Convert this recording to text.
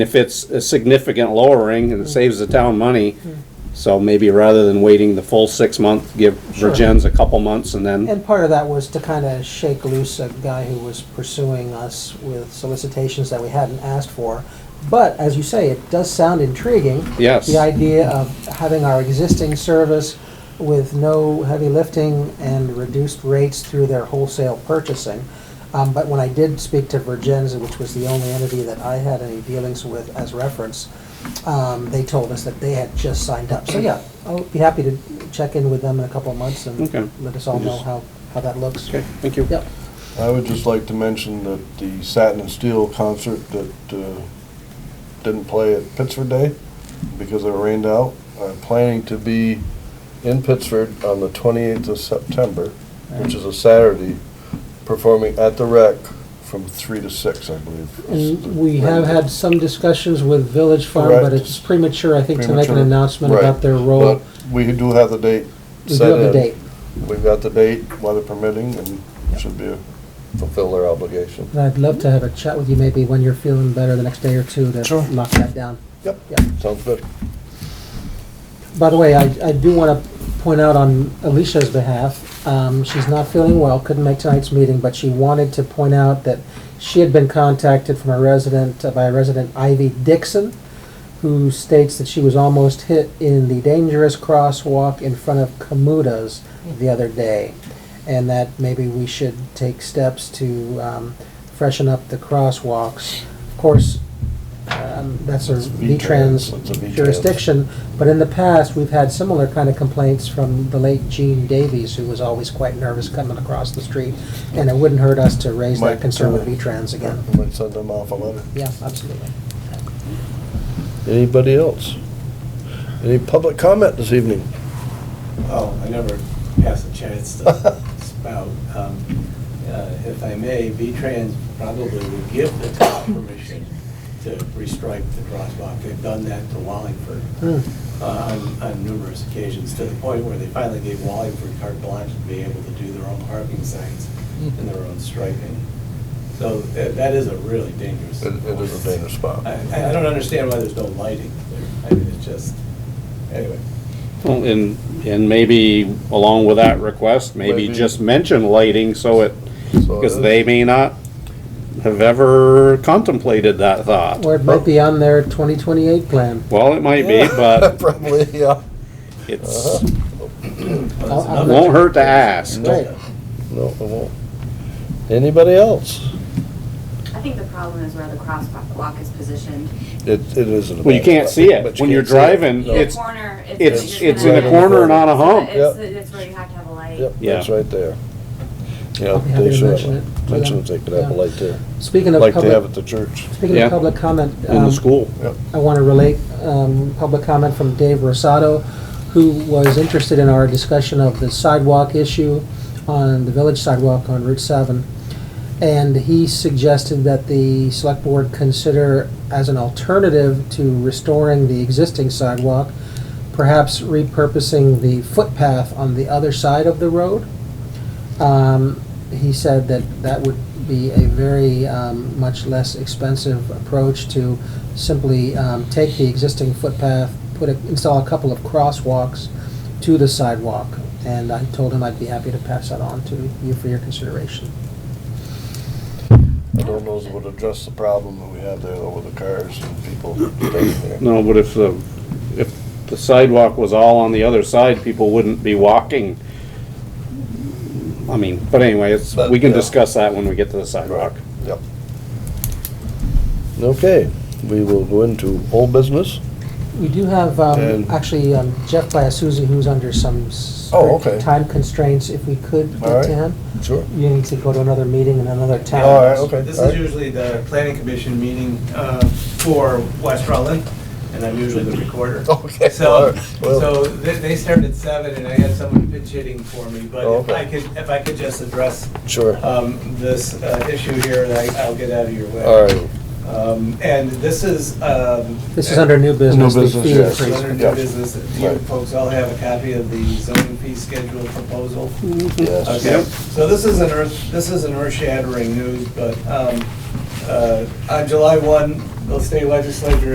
If it's a significant lowering Mm-hmm. and it saves the town money, so maybe rather than waiting the full six months, give Sure. Virgins a couple months and then, And part of that was to kind of shake loose a guy who was pursuing us with solicitations that we hadn't asked for. But as you say, it does sound intriguing. yes. The idea of having our existing service with no heavy lifting and reduced rates through their wholesale purchasing. Um, But when I did speak to Virgin's, which was the only entity that I had any dealings with as reference, um, they told us that they had just signed up. So yeah, I'll be happy to check in with them in a couple of months and Okay. let us all know how, how that looks. Okay, thank you. Yep. I would just like to mention that the Satin and Steel concert that uh, didn't play at Pittsford Day because it rained out, I'm planning to be in Pittsford on the 28th of September, which is a Saturday, performing at the Rec from 3 to 6, I believe. is the- And we have had some discussions with Village Farm, but Correct. it's premature, I think, to make an Premature. announcement Right. about their role. But uh, We do have the date We do set have the in. date. We've got the date, weather permitting, and should be, a- fulfill their obligation. And I'd love to have a chat with you maybe when you're feeling better the next day or two to Sure. lock that down. Yep, Yep. sounds good. By the way, I, I do want to point out on Alicia's behalf, um, she's not feeling well, couldn't make tonight's meeting, but she wanted to point out that she had been contacted from a resident, uh, by a resident Ivy Dixon, who states that she was almost hit in the dangerous crosswalk in front of Kamuta's the other day. And that maybe we should take steps to, um, freshen up the crosswalks. Of course, um, that's a It's V-Trans, V-Trans it's a V-Trans. jurisdiction, but in the past, we've had similar kind of complaints from the late Gene Davies, who was always quite nervous coming across the street, and it wouldn't hurt us to raise that Mike, concern with uh, V-Trans again. I might send them off a letter. Yeah, absolutely. Anybody else? Any public comment this evening? Oh, I never pass a chance to spout. Um, uh, If I may, V-Trans probably would give the town permission to restripe the crosswalk. They've done that to Wallingford Hmm. uh, on on numerous occasions, to the point where they finally gave Wallingford carte blanche to be able to do their own parking signs and their own striping. So that that is a really dangerous. It it is a dangerous spot. I I- I don't understand why there's no lighting there. I mean, it's just, anyway. Well, And, and maybe along with that request, maybe Maybe. just mention lighting so it, So because it- they may not have ever contemplated that thought. Or it might Oh. be on their 2028 plan. Well, it might be, but Probably, yeah. it's, Well, that's I'll- I'll- another- won't hurt to ask. Right. No, it won't. Anybody else? I think the problem is where the crosswalk is positioned. It, it isn't. Well, you can't see it. When you're driving, In a it's, corner. it's- just it's gonna in a have- corner and on a hump. It's, Yep. it's where you have to have a light. Yep, Yeah. it's right there. Yeah, I'll be happy they to should mention it have, to mention them. if they could have a Yeah. light there, Speaking of like they have public, at the church. speaking Yeah. of public comment, in the um, school. I want to relate um, public comment from Dave Rosato, who was interested in our discussion of the sidewalk issue on the village sidewalk on Route 7. And he suggested that the select board consider as an alternative to restoring the existing sidewalk, perhaps repurposing the footpath on the other side of the road. Um, He said that that would be a very um, much less expensive approach to simply um, take the existing footpath, put, a- install a couple of crosswalks to the sidewalk. And I told him I'd be happy to pass that on to you for your consideration. I don't know if it would address the problem that we have there though with the cars and people staying there. No, but if the, if the sidewalk was all on the other side, people wouldn't be walking. I mean, but anyway, it's, But, we can yeah. discuss that when we get to the sidewalk. Yep. Okay, we will go into old business. We do have, um, And- actually, um, Jeff Biasuzzi, who's under some Oh, strict okay. time constraints, if we could get Alright. to him. Sure. You need to go to another meeting in another town. All right, okay. This all is right. usually the planning commission meeting uh, for West Rutland, and I'm usually the recorder. Okay, all So, right, well- so they they started at seven, and I had someone pitch hitting for me, but if Okay. I could, if I could just address Sure. um, this uh, issue here, and I- I'll get out of your way. All right. Um, And this is. um, This is under new business. the business, fee yes. This is increase. under Yeah. new business. You Right. folks all have a copy of the zoning fee schedule proposal. Yes. Okay, so this isn't earth, this isn't earth-shattering news, but um, uh, on July 1, the state legislature